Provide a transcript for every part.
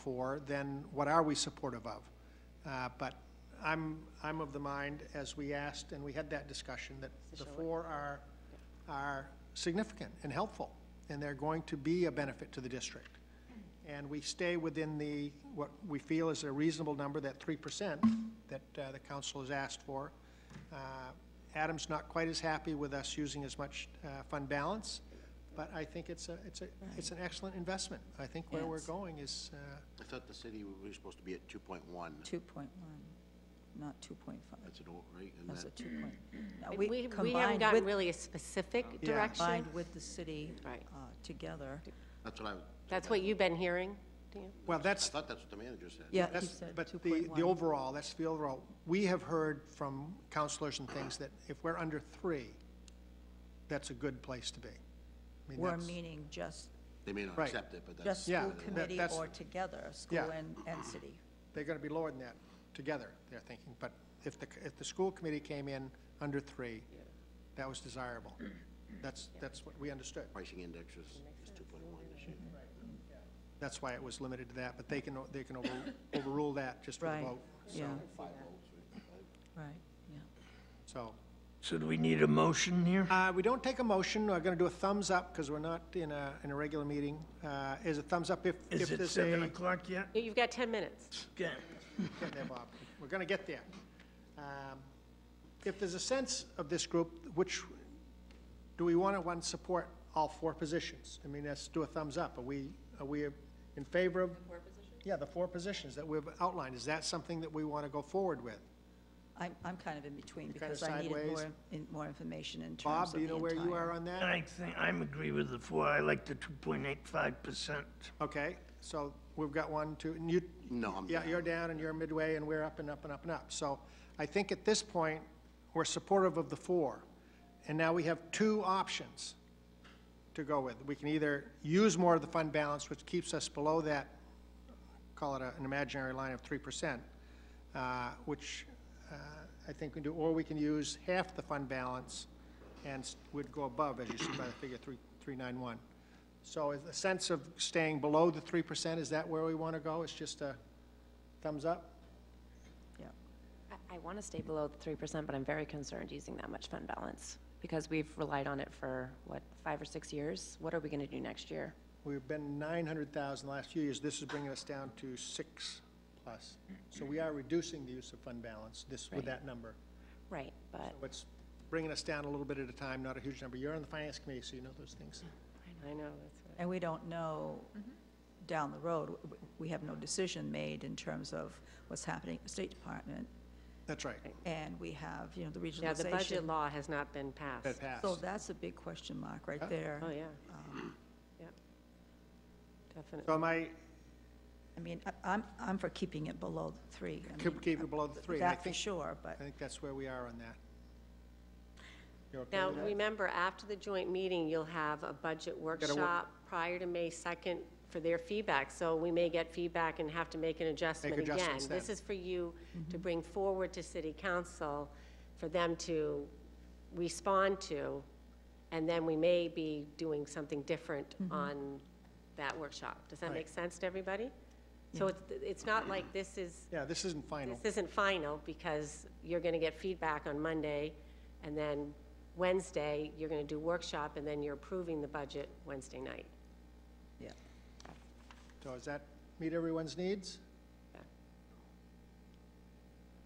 for, then what are we supportive of? Uh, But I'm, I'm of the mind, as we asked, and we had that discussion, that the four are, are significant and helpful, and they're going to be a benefit to the district. And we stay within the, what we feel is a reasonable number, that three percent that uh, the council has asked for. Uh, Adam's not quite as happy with us using as much uh, fund balance, but I think it's a, it's a, it's an excellent investment. I think where we're Yes. going is, uh, I thought the city, we were supposed to be at two point one. 2.1, not 2.5. That's an old, right? And That's a that- 2 point. no, We, we haven't combined gotten with- really a specific Yeah. direction. Combined with the city Right. uh, together. That's what I, That's what you've been hearing, Dan? well, I that's, thought that's what the manager said. Yeah, he That's, said but the, the 2.1. overall, that's the overall. We have heard from counselors and things that if we're under three, that's a good place to be. I mean, We're that's- meaning just, They may not Right. accept it, but just that's, Yeah, school that- committee that's- or together, school Yeah. and, and city. They're gonna be lower than that together, they're thinking. But if the, if the school committee came in under three, that was desirable. That's, that's what we understood. pricing index is, is two point one this year. Mm-hmm. That's why it was limited to that, but they can, they can over- overrule that just for the Right, vote. yeah. Right, yeah. So, So do we need a motion here? Uh, we don't take a motion, we're gonna do a thumbs up, because we're not in a, in a regular meeting. Uh, is a thumbs up if, if Is it there's a. seven o'clock yet? You've got 10 minutes. Okay. Get there, Bob. We're gonna get there. Um, If there's a sense of this group, which, do we wanna, one, support all four positions? I mean, let's do a thumbs up. Are we, are we in favor of? four positions? Yeah, the four positions that we've outlined. Is that something that we wanna go forward with? I'm, I'm kind of in between kinda because I needed sideways. more, in- more information in terms Bob, of do you the know where you entire- are on that? I think, I'm agree with the four, I like the two point eight five percent. Okay, so we've got one, two, and you, No, I'm. Yeah, you're down and you're midway and we're up and up and up and up. So I think at this point, we're supportive of the four. And now we have two options to go with. We can either use more of the fund balance, which keeps us below that, call it a- an imaginary line of three percent, which uh, I think we do, or we can use half the fund balance and s- would go above, as you see by the figure three, three nine one. So is the sense of staying below the three percent, is that where we want to go? It's just a thumbs up? Yeah. I- I want to stay below the 3%, but I'm very concerned using that much fund balance because we've relied on it for, what, five or six years? What are we going to do next year? We've been nine hundred thousand the last few years, this is bringing us down to six plus. So we are reducing the use of fund balance, this, with Right. that number. Right, but So it's bringing us down a little bit at a time, not a huge number. You're on the finance committee, so you know those things. I know, that's what And we don't know Mm-hmm. down the road, w- w- we have no decision made in terms of what's happening at the State Department. That's right, And we have, you know, the regionalization. Yeah, the budget law has not been that passed. passed. So that's a big question mark Yeah. right there. Oh, yeah, Um, yeah. Definitely. So am I, I mean, I- I'm, I'm for keeping it below the three. I keep mean, uh, keep it below the three? and I That for think- sure, but I think that's where we are on that. You're okay Now, with that? remember, after the joint meeting, you'll have a budget workshop prior to May 2nd for their feedback, so we may get feedback and have to make an adjustment again. adjustments then. Mm-hmm. This is for you to bring forward to city council, for them to respond to, and then we may be doing something different on that workshop. Does that Mm-hmm. Right. make sense to everybody? So it's, it's not like this is Yeah, this isn't final. this isn't final because you're going to get feedback on Monday, and then Wednesday, you're going to do workshop, and then you're approving the budget Wednesday night. yeah, So does that meet everyone's needs? Yeah.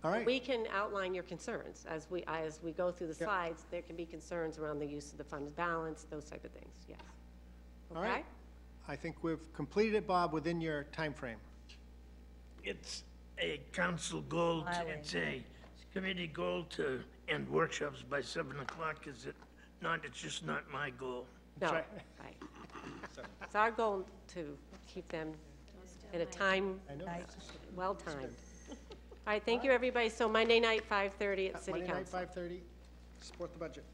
All right. We can outline your concerns as we, as we go through the slides. There can be concerns around the use of the fund's balance, those type of things, yes. All right. Okay? I think we've completed it, Bob, within your time frame. It's a council goal, to- it's a committee goal to end workshops by seven o'clock, is it not? It's just not my goal. No, right. right. It's our goal to keep them at a time, I know. Night. well timed. All right, thank you, everybody. So Monday night, 5:30 at Uh, City Monday night, Council. 5:30, support the budget.